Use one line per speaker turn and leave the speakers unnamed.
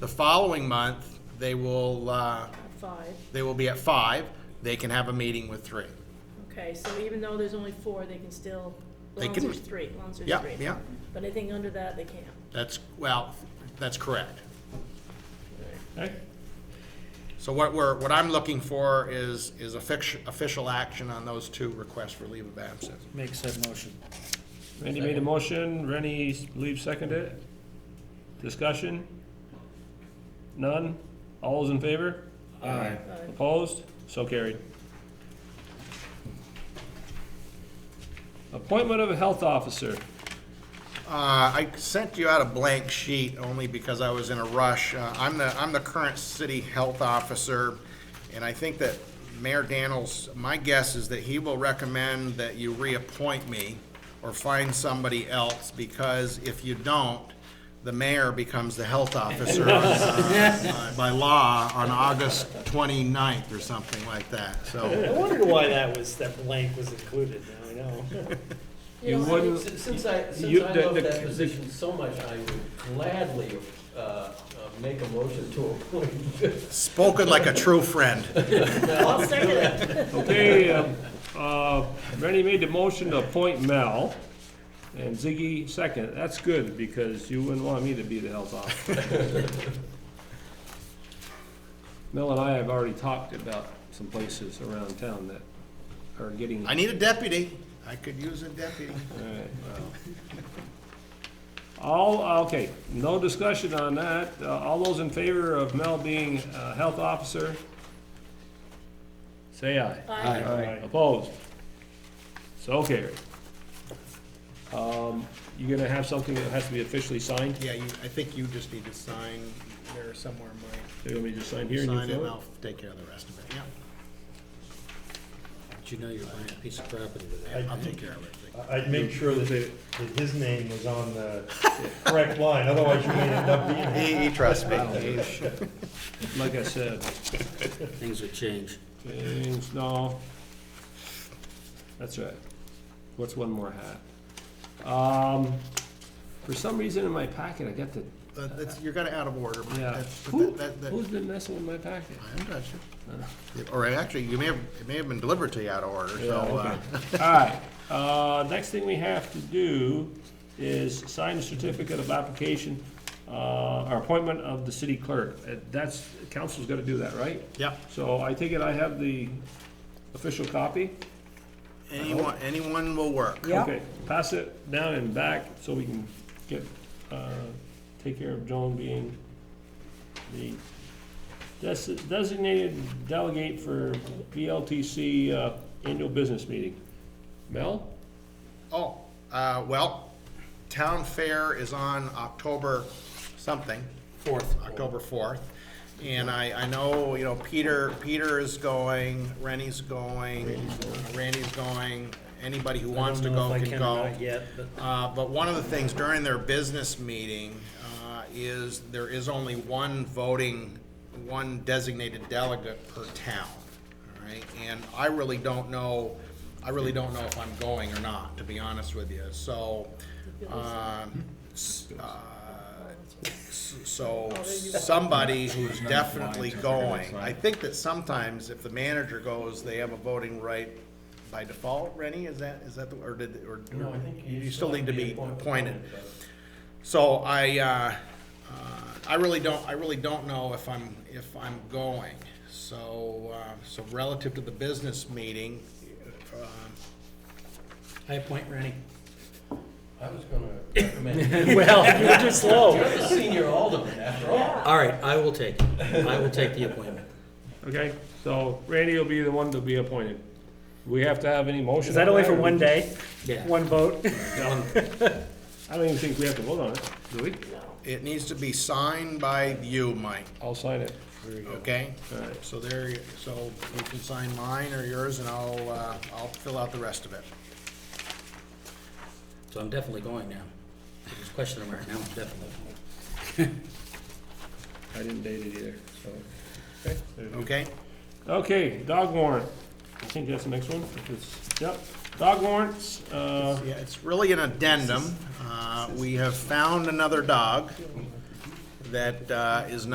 The following month, they will, uh,
Five,
they will be at five. They can have a meeting with three.
okay, so even though there's only four, they can still,
They
as long as
can-
there's three, as long as there's
Yeah,
three.
yeah.
But anything under that, they can't.
That's, well, that's correct.
Okay.
So what we're, what I'm looking for is, is offic- official action on those two requests for leave of absence.
Make said motion.
Randy made a motion, Rennie, believe seconded it. Discussion? None? All those in favor?
Aye.
Uh,
Opposed? So carried. Appointment of a health officer.
Uh, I sent you out a blank sheet only because I was in a rush. Uh, I'm the, I'm the current city health officer, and I think that Mayor Daniels, my guess is that he will recommend that you reappoint me or find somebody else, because if you don't, the mayor becomes the health officer on, uh, by law on August 29th or something like that, so.
I wondered why that was, that blank was included, now I know.
You
don't-
wouldn't,
Since since I, since
Uh, You-
I
the-
love
the-
that position so much, I would gladly uh, uh, make a motion to appoint.
Spoken like a true friend.
I'll second it.
okay, um, uh, Rennie made the motion to appoint Mel, and Ziggy second. That's good, because you wouldn't want me to be the health officer. Mel and I have already talked about some places around town that are getting.
I need a deputy. I could use a deputy.
Alright. All, okay, no discussion on that. Uh, All those in favor of Mel being uh, health officer? Say aye.
Aye.
Opposed? So carried. Um, You're gonna have something that has to be officially signed?
Yeah, you, I think you just need to sign there somewhere, Mike.
You want me to sign here and you
Sign it,
fill
and
it?
I'll take care of the rest of it, yeah.
But you know you're buying a piece of property with that.
I'll take care of everything.
I'd make sure that, that his name was on the correct line, otherwise you may end up being.
He, he trusts me.
Like I said,
Things would change.
James, no. That's right. What's one more hat? Um, for some reason in my packet, I got the,
Uh, that's, you're kinda out of order, Mike.
yeah.
That's- but
Who,
that- that-
who's been messing with my packet?
I haven't touched it. Or actually, you may have, it may have been delivered to you out of order, so, uh,
All right, uh, next thing we have to do is sign the certificate of application, uh, or appointment of the city clerk. Uh, That's, council's gotta do that, right?
yeah.
So I take it I have the official copy?
Anyone, anyone will work.
Okay, pass it down and back so we can get, uh, take care of Joan being the des- designated delegate for BLTC uh, annual business meeting. Mel?
Oh, uh, well, Town Fair is on October something. Fourth. October fourth. And I, I know, you know, Peter, Peter is going, Rennie's going, uh, Randy's going, anybody who wants to go can go.
Yet, but
Uh, But one of the things during their business meeting uh, is there is only one voting, one designated delegate per town, all right? And I really don't know, I really don't know if I'm going or not, to be honest with you. So, um, s- uh, s- so somebody who's definitely going, I think that sometimes if the manager goes, they have a voting right by default, Rennie, is that, is that, the or did, or
No, I think
you still need to be appointed. So I, uh, uh, I really don't, I really don't know if I'm, if I'm going. So, uh, so relative to the business meeting, um,
I appoint Rennie.
I was gonna recommend,
Well, you're just
you're
slow.
the senior alderman after all.
All right, I will take it. I will take the appointment.
Okay, so Randy will be the one to be appointed. We have to have any motion?
Is that
on
only for one day,
Yeah.
one vote?
I don't even think we have to vote on it, do we?
it needs to be signed by you, Mike,
I'll sign it.
okay?
All right.
So there, you- so you can sign mine or yours and I'll, uh, I'll fill out the rest of it.
So I'm definitely going now. There's a question mark. Now I'm definitely. going.
I didn't date it either, so. Okay.
Okay?
Okay, dog warrant. I think that's the next one. if it's- Yep, dog warrants, uh,
Yeah, it's really an addendum. Uh, We have found another dog that uh, is not.